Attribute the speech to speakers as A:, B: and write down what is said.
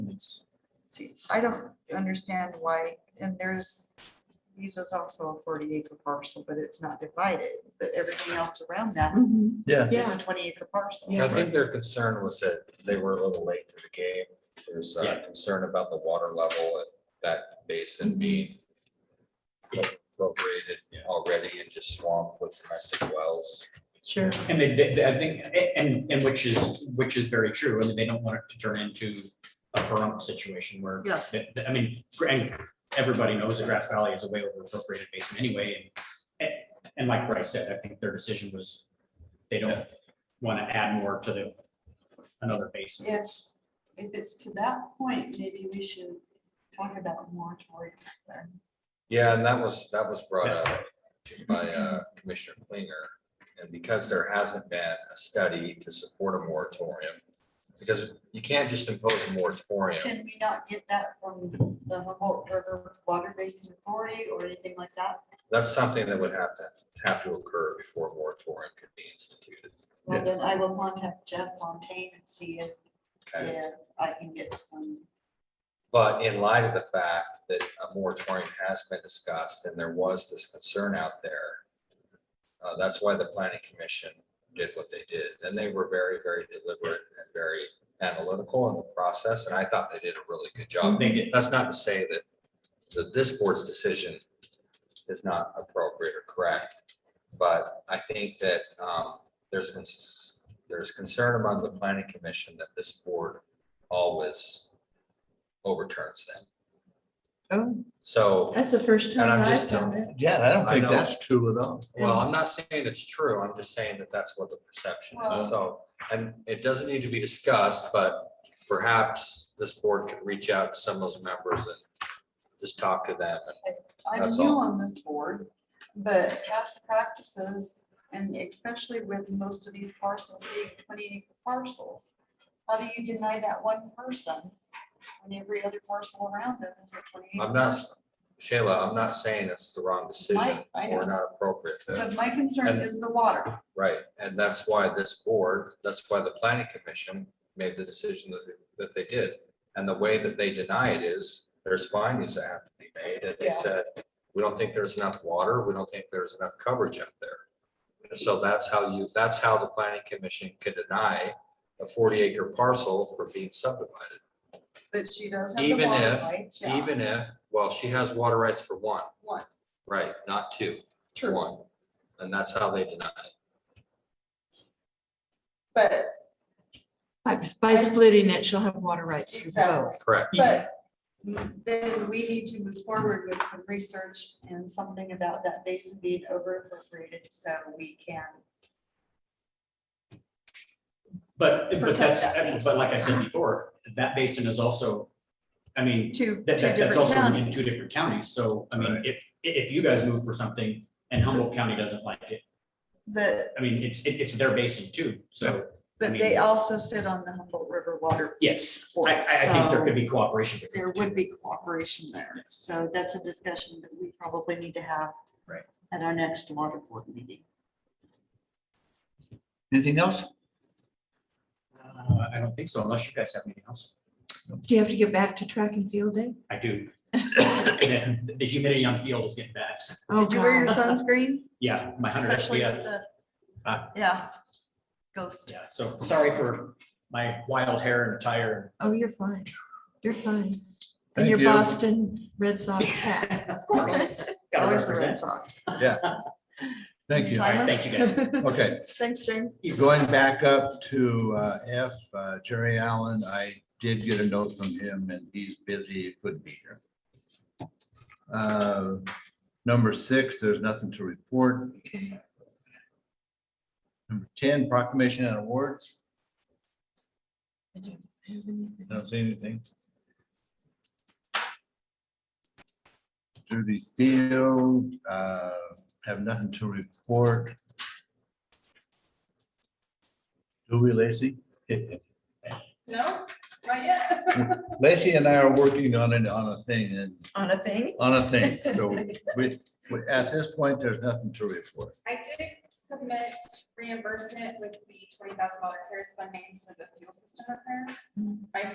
A: I don't understand why, and there's, these is also a forty acre parcel, but it's not divided, but everything else around that
B: Mhm.
C: Yeah.
A: is a
B: Yeah.
A: twenty acre parcel.
B: Yeah.
D: I think their concern was that they were a little late to the game. There's uh, concern about the water level at that basin being appropriated already and just swamped with domestic wells.
B: Sure.
E: And they, they- they- I think, a- and, and which is, which is very true, I mean, they don't want it to turn into a Pahrump situation where.
A: Yes.
E: that- that- I mean, gr- and everybody knows that Grass Valley is a way over appropriated basin anyway, and, and- and like Bryce said, I think their decision was, they don't want to add more to the, another basin.
A: It's, if it's to that point, maybe we should talk about a moratorium. there.
D: Yeah, and that was, that was brought up by uh, Commissioner Klinger. And because there hasn't been a study to support a moratorium, because you can't just impose a moratorium.
A: Can we not get that from the Humboldt River Water Basin Authority or anything like that?
D: That's something that would have to, have to occur before a moratorium could be instituted.
A: Well, then I will contact Jeff Fontaine and see if,
D: Okay?
A: if I can get some.
D: But in light of the fact that a moratorium has been discussed and there was this concern out there, uh, that's why the planning commission did what they did. And they were very, very deliberate and very analytical in the process, and I thought they did a really good job.
E: They did.
D: That's not to say that, that this board's decision is not appropriate or correct. But I think that, um, there's, been s- there's concern among the planning commission that this board always overturns them.
B: Oh.
D: So,
B: That's the first
D: And I'm
B: time I've
D: just-
B: done that.
C: Yeah, I don't
D: I
C: think
D: know.
C: that's true at all.
D: well, I'm not saying it's true, I'm just saying that that's what the perception is,
A: Well-
D: so, and it doesn't need to be discussed, but perhaps this board could reach out to some of those members and just talk to them, and
A: I'm
D: That's
A: new
D: all.
A: on this board, but past practices, and especially with most of these parcels being twenty acre parcels, how do you deny that one person when every other parcel around them is a twenty?
D: I'm not, Shayla, I'm not saying it's the wrong decision
A: Mike, I
D: or
A: know.
D: not appropriate,
A: But my concern
D: And-
A: is the water.
D: right? And that's why this board, that's why the planning commission made the decision that, that they did. And the way that they deny it is, there's findings that have to be made, and they
A: Yeah.
D: said, we don't think there's enough water, we don't think there's enough coverage out there. And So that's how you, that's how the planning commission can deny a forty acre parcel from being subdivided.
A: But she does have the
D: Even
A: water
D: if-
A: rights. yeah.
D: Even if, well, she has water rights for one,
A: One,
D: right, not two,
A: true,
D: one. And that's how they deny it.
A: but
B: By- By splitting it, she'll have water rights for both.
A: exactly.
D: Correct.
A: But then we need to move forward with some research and something about that basin being over appropriated so we can.
E: But, but
A: Protect
E: that's,
A: that basin.
E: but like I said before, that basin is also, I mean,
A: Two,
E: That,
A: two
E: that, that's
A: different
E: also in two
A: counties.
E: different counties, so, I mean,
C: Right.
E: if, i- if you guys move for something and Humboldt County doesn't like it,
A: But,
E: I mean, it's, it- it's their basin too, so,
A: but they also sit on the Humboldt River water.
E: yes,
A: board,
E: I, I, I think there
A: so
E: could be cooperation. with
A: There
E: the
A: would
E: two.
A: be cooperation there. So that's a discussion that we probably need to have.
E: Right.
A: At our next water board meeting.
C: Anything else?
E: Uh, I don't think so, unless you guys have anything else.
B: Do you have to get back to track and field day?
E: I do. The the humidity on field is getting bad, so,
B: Oh,
A: Did you wear your
B: God.
A: sunscreen?
E: yeah, my hundred
A: Especially
E: SPF,
A: with the,
C: Ah.
A: yeah, ghost.
E: yeah, so, sorry for my wild hair and attire.
B: Oh, you're fine. You're fine. And
C: Thank
B: your
C: you.
B: Boston Red Sox hat.
A: Of
E: course. Gotta
A: Always the Red
E: represent.
A: Sox.
C: Thank you.
E: All right, thank you guys.
C: Okay,
A: Thanks, James.
C: going back up to uh, F, uh, Jerry Allen, I did get a note from him and he's busy, couldn't be here. Uh, Number six, there's nothing to report. Number ten, proclamation and awards. I don't see anything. Judy Steele, uh, have nothing to report. Do we, Lacy?
F: No, not yet.
C: Lacy and I are working on it, on a thing, and,
B: On a thing?
C: on a thing, so we, we- at this point, there's nothing to report.
F: I did submit reimbursement with the twenty thousand dollar CARES funding for the fuel system repairs. My